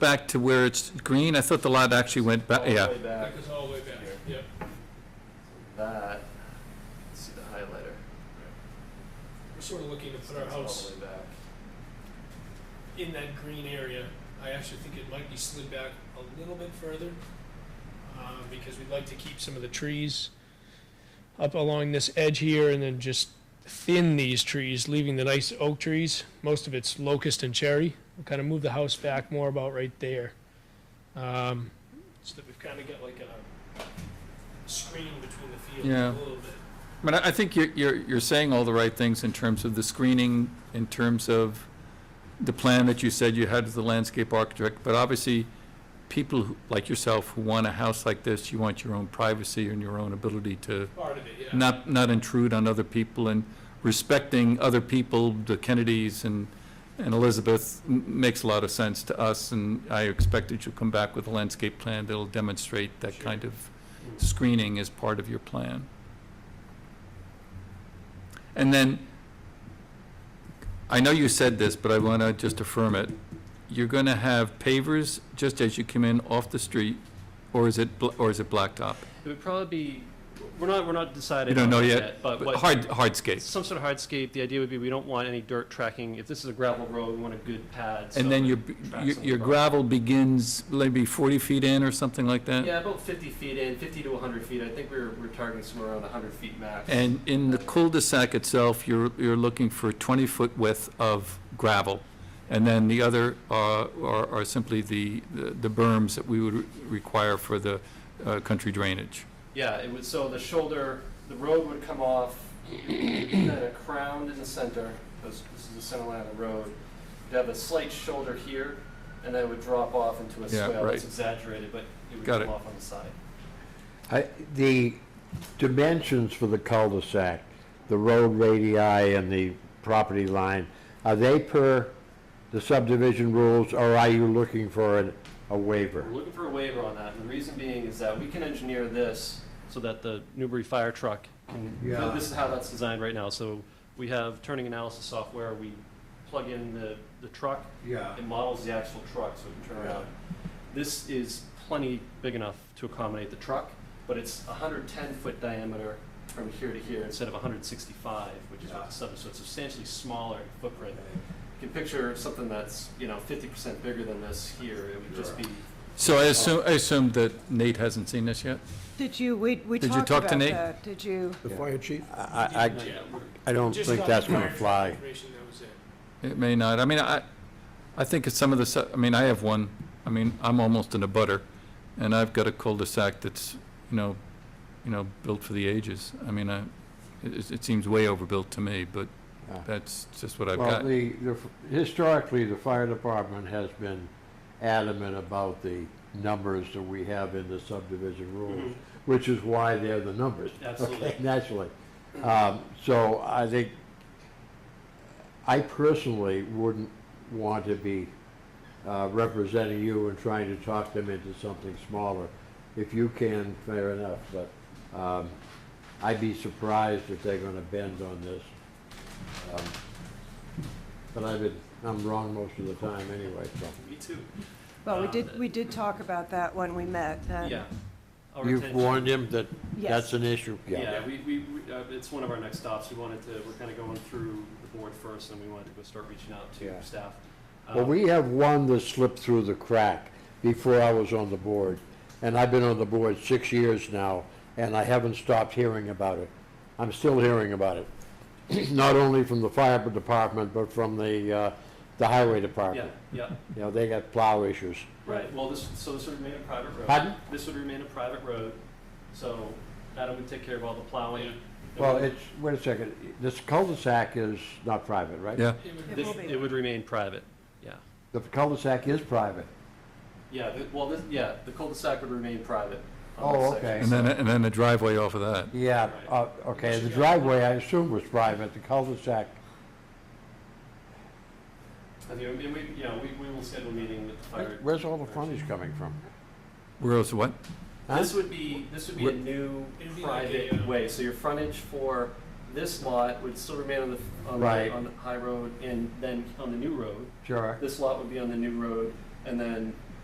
back to where it's green? I thought the lot actually went back, All yeah. the way back, That goes all the way back, yep. that, let's see the highlighter. We're sort of looking to put our That's all house the way back. in that green area. I actually think it might be slid back a little bit further, um, because we'd like to keep some of the trees up along this edge here and then just thin these trees, leaving the nice oak trees. Most of it's locust and cherry. We'll kind of move the house back more about right there. Um, so that we've kind of got like a screen between the fields Yeah. a little bit. I mean, I I think you're, you're, you're saying all the right things in terms of the screening, in terms of the plan that you said you had as the landscape architect, but obviously, people who- like yourself who want a house like this, you want your own privacy and your own ability to Part of it, yeah. not, not intrude on other people and respecting other people, the Kennedys and, and Elizabeth, m- makes a lot of sense to us, and I expect that you'll come back with a landscape plan that'll demonstrate that Sure. kind of screening as part of your plan. And then, I know you said this, but I want to just affirm it. You're going to have pavers just as you come in off the street, or is it, bl- or is it blacktop? It would probably be, we're not, we're not decided. You don't on know that yet, But Uh, what, Hard, hardscape. some sort of hardscape, the idea would be we don't want any dirt tracking. If this is a gravel road, we want a good pad. so And then it your, tracks your- on the your property. gravel begins maybe 40 feet in or something like that? Yeah, about fifty feet in, fifty to hundred feet. I think we're, we're targeting somewhere around hundred feet max. And in the cul-de-sac itself, you're, you're looking for 20-foot width of gravel. And then the other uh, are, are simply the, the berms that we would re- require for the uh, country drainage. Yeah, it would, so the shoulder, the road would come off, kind of crowned in the center, because this is the center line of the road. You'd have a slight shoulder here, and then it would drop off into a Yeah, swale right. that's exaggerated, but it would Got it. come off on the side. I- The dimensions for the cul-de-sac, the road radii and the property line, are they per the subdivision rules, or are you looking for an- a waiver? We're looking for a waiver on that, and the reason being is that we can engineer this so that the Newbury fire truck can, Yeah. this is how that's designed right now, so we have turning analysis software, we plug in the, the truck, Yeah. it models the actual truck so it can turn around. This is plenty big enough to accommodate the truck, but it's hundred ten foot diameter from here to here instead of hundred sixty-five, which is what Yeah. the sub, so it's substantially smaller in footprint. You can picture something that's, you know, fifty percent bigger than this here, it would just be So I assume, I assume that Nate hasn't seen this yet? Did you, we, we Did you talked talk to about Nate? that, did you? The fire chief? I, I, Yeah, we're- I don't just think got that's the gonna fire fly. information, that was it. It may not. I mean, I, I think it's some of the, su- I mean, I have one, I mean, I'm almost in a butter, and I've got a cul-de-sac that's, you know, you know, built for the ages. I mean, I, it, it seems way overbuilt to me, but Yeah. that's just what I've Well, got. the, the- historically, the fire department has been adamant about the numbers that we have in the subdivision rules, Mm-hmm. which is why they're the numbers. Absolutely. okay, Naturally. Um, So I think, I personally wouldn't want to be uh, representing you and trying to talk them into something smaller. If you can, fair enough, but um, I'd be surprised if they're going to bend on this. Um, But I've been, I'm wrong most of the time anyway, so. Me too. Well, we Uh, did, we did talk about that when we met, that- Yeah. Our You've intention- warned him that that's Yes. an issue? Yeah, we, we, we- uh, it's one of our next stops. We wanted to, we're kind of going through the board first, and we wanted to go start reaching out Yeah. to staff. Well, Um, we have one that slipped through the crack before I was on the board, and I've been on the board six years now, and I haven't stopped hearing about it. I'm still hearing about it, not only from the fire department, but from the, uh, the highway Yeah, department. yeah, You know, they got plow issues. right. Well, this, so this would remain a private road. Pardon? This would remain a private road, so Adam would take care of all the plowing. Well, it's, wait a second, this cul-de-sac is not private, right? Yeah, It would- It This- will be. It would remain private, yeah. The cul-de-sac is private. Yeah, the- well, this, yeah, the cul-de-sac would remain private. on Oh, this okay. section, and then, and then the driveway off of that. Yeah, uh, okay, the driveway, I assume, was private, the cul-de-sac, so- And, you know, and we, yeah, we, we will schedule a meeting with the fire. where's all the frontage coming from? Where else, what? Huh? This would be, this would be a Wh- new It'd be like a, private uh, way, so your frontage for this lot would still remain on the, on Right. the, on the high road, and then on the new road. Sure. This lot would be on the new road, and then